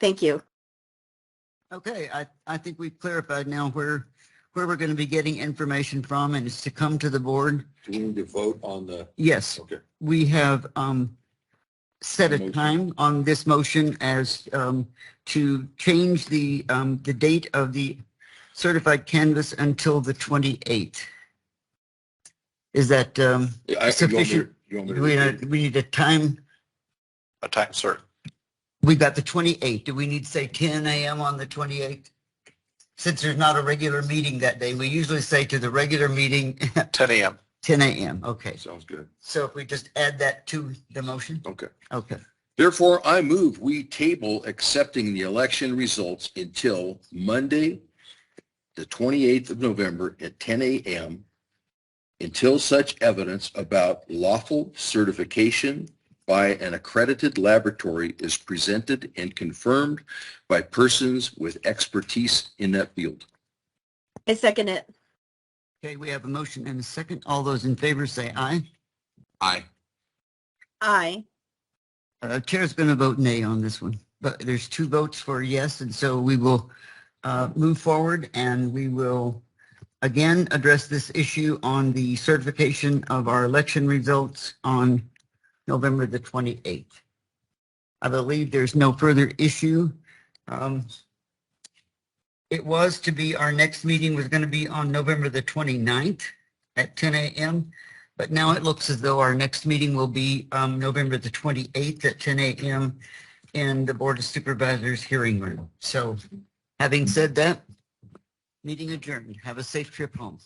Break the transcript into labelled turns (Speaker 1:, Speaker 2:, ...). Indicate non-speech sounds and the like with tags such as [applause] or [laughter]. Speaker 1: Thank you.
Speaker 2: Okay, I, I think we've clarified now where, where we're going to be getting information from and it's to come to the board.
Speaker 3: Do we need to vote on the,
Speaker 2: Yes,
Speaker 3: okay,
Speaker 2: we have, um, set a
Speaker 3: Motion.
Speaker 2: time on this motion as, um, to change the, um, the date of the certified canvas until the 28th. Is that, um,
Speaker 3: I- you want me to-
Speaker 2: Sufficient-
Speaker 3: you want me
Speaker 2: do
Speaker 3: to
Speaker 2: we,
Speaker 3: repeat?
Speaker 2: we need a time,
Speaker 4: a time certain.
Speaker 2: we got the 28th. Do we need to say 10 AM on the 28th? Since there's not a regular meeting that day, we usually say to the regular meeting, [laughs]
Speaker 4: 10 a.m.
Speaker 2: 10 a.m. Okay,
Speaker 3: Sounds good.
Speaker 2: so if we just add that to the motion?
Speaker 3: Okay.
Speaker 2: Okay,
Speaker 3: Therefore, I move we table accepting the election results until Monday, the 28th of November at 10 a.m. until such evidence about lawful certification by an accredited laboratory is presented and confirmed by persons with expertise in that field.
Speaker 1: I second it.
Speaker 2: okay, we have a motion and a second. All those in favor say aye.
Speaker 3: Aye.
Speaker 1: Aye.
Speaker 2: Uh, Chair's going to vote nay on this one, but there's two votes for yes, and so we will uh, move forward and we will again address this issue on the certification of our election results on November the 28th. I believe there's no further issue. Um, It was to be, our next meeting was going to be on November the 29th at 10 a.m. But now it looks as though our next meeting will be um, November the 28th at 10 a.m. in the Board of Supervisors hearing room. So having said that, meeting adjourned. Have a safe trip home.